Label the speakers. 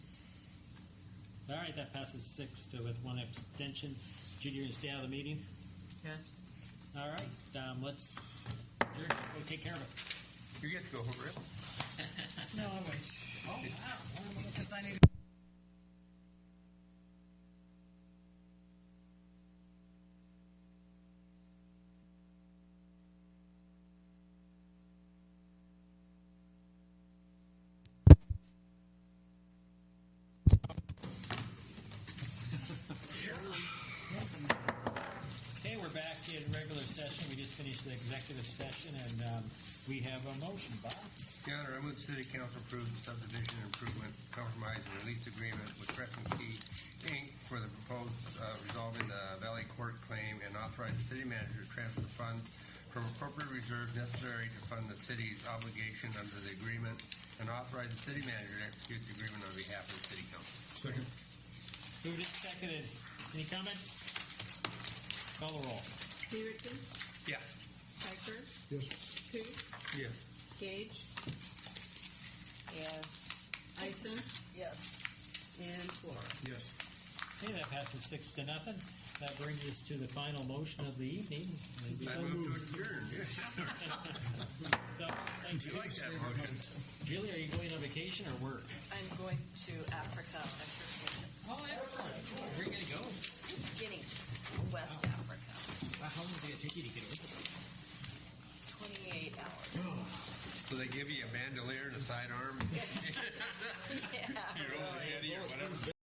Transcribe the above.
Speaker 1: All right, that passes six to with one abstention. Judy, you're gonna stay out of the meeting?
Speaker 2: Yes.
Speaker 1: All right, um, let's, Jerry, go take care of it.
Speaker 3: You get to go over it.
Speaker 2: No, I wait. Oh, wow. Because I need
Speaker 1: Okay, we're back in regular session. We just finished the executive session and, um, we have a motion. Bob?
Speaker 3: Your Honor, I move the city council approve the subdivision improvement compromise and release agreement with Crescent Key Inc. for the proposed uh, resolving the Valley Court claim and authorize the city manager to transfer funds from appropriate reserve necessary to fund the city's obligation under the agreement and authorize the city manager to execute the agreement on behalf of the city council.
Speaker 4: Second.
Speaker 1: Moved and seconded. Any comments? Call the roll.
Speaker 5: Severson,
Speaker 3: Yes.
Speaker 5: Piper,
Speaker 4: Yes.
Speaker 5: Coots,
Speaker 3: Yes.
Speaker 5: Gage,
Speaker 2: Yes.
Speaker 5: Isom,
Speaker 2: Yes.
Speaker 5: and Flora.
Speaker 4: Yes.
Speaker 1: Okay, that passes six to nothing. That brings us to the final motion of the evening. Maybe
Speaker 3: I
Speaker 1: so-
Speaker 3: move to adjourn.
Speaker 1: So, thank
Speaker 3: You
Speaker 1: you.
Speaker 3: like that motion?
Speaker 1: Julie, are you going on vacation or work?
Speaker 2: I'm going to Africa. on a vacation.
Speaker 1: Oh, excellent. Where are you gonna go?
Speaker 2: Guinea, West Africa.
Speaker 1: How long is it gonna take you to get over?
Speaker 2: 28 hours.
Speaker 3: So they give you a bandolier and a sidearm?
Speaker 2: Yeah,
Speaker 3: You're over
Speaker 2: really.
Speaker 3: or whatever.